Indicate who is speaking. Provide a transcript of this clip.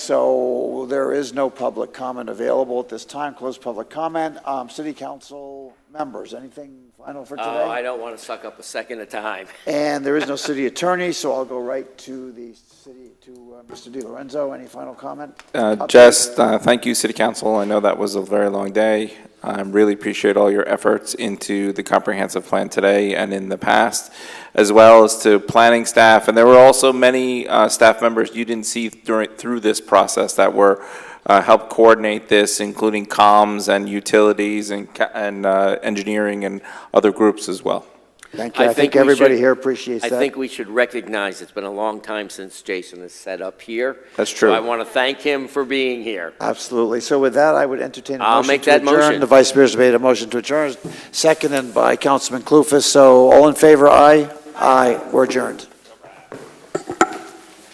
Speaker 1: So there is no public comment available at this time. Close public comment. Um, City council members, anything final for
Speaker 2: Oh, I
Speaker 1: today?
Speaker 2: don't want to suck up a second of time.
Speaker 1: And there is no city attorney, so I'll go right to the city, to uh, Mr. Di Lorenzo. Any final comment?
Speaker 3: Uh, Just, uh, thank you, City Council. I know that was a very long day. I really appreciate all your efforts into the comprehensive plan today and in the past, as well as to planning staff. And there were also many uh, staff members you didn't see during, through this process that were, uh, helped coordinate this, including comms and utilities and, ca- and uh, engineering and other groups as well.
Speaker 1: Thank you. I think
Speaker 2: we
Speaker 1: everybody
Speaker 2: should-
Speaker 1: here appreciates
Speaker 2: I
Speaker 1: that.
Speaker 2: think we should recognize it's been a long time since Jason has set up here.
Speaker 3: That's true.
Speaker 2: So I want to thank him for being here.
Speaker 1: Absolutely. So with that, I would entertain a
Speaker 2: I'll
Speaker 1: motion
Speaker 2: make
Speaker 1: to
Speaker 2: that
Speaker 1: adjourn.
Speaker 2: motion.
Speaker 1: The vice mayor's made a motion to adjourn, seconded by Councilman Clufus. So all in favor, aye? Aye. We're adjourned.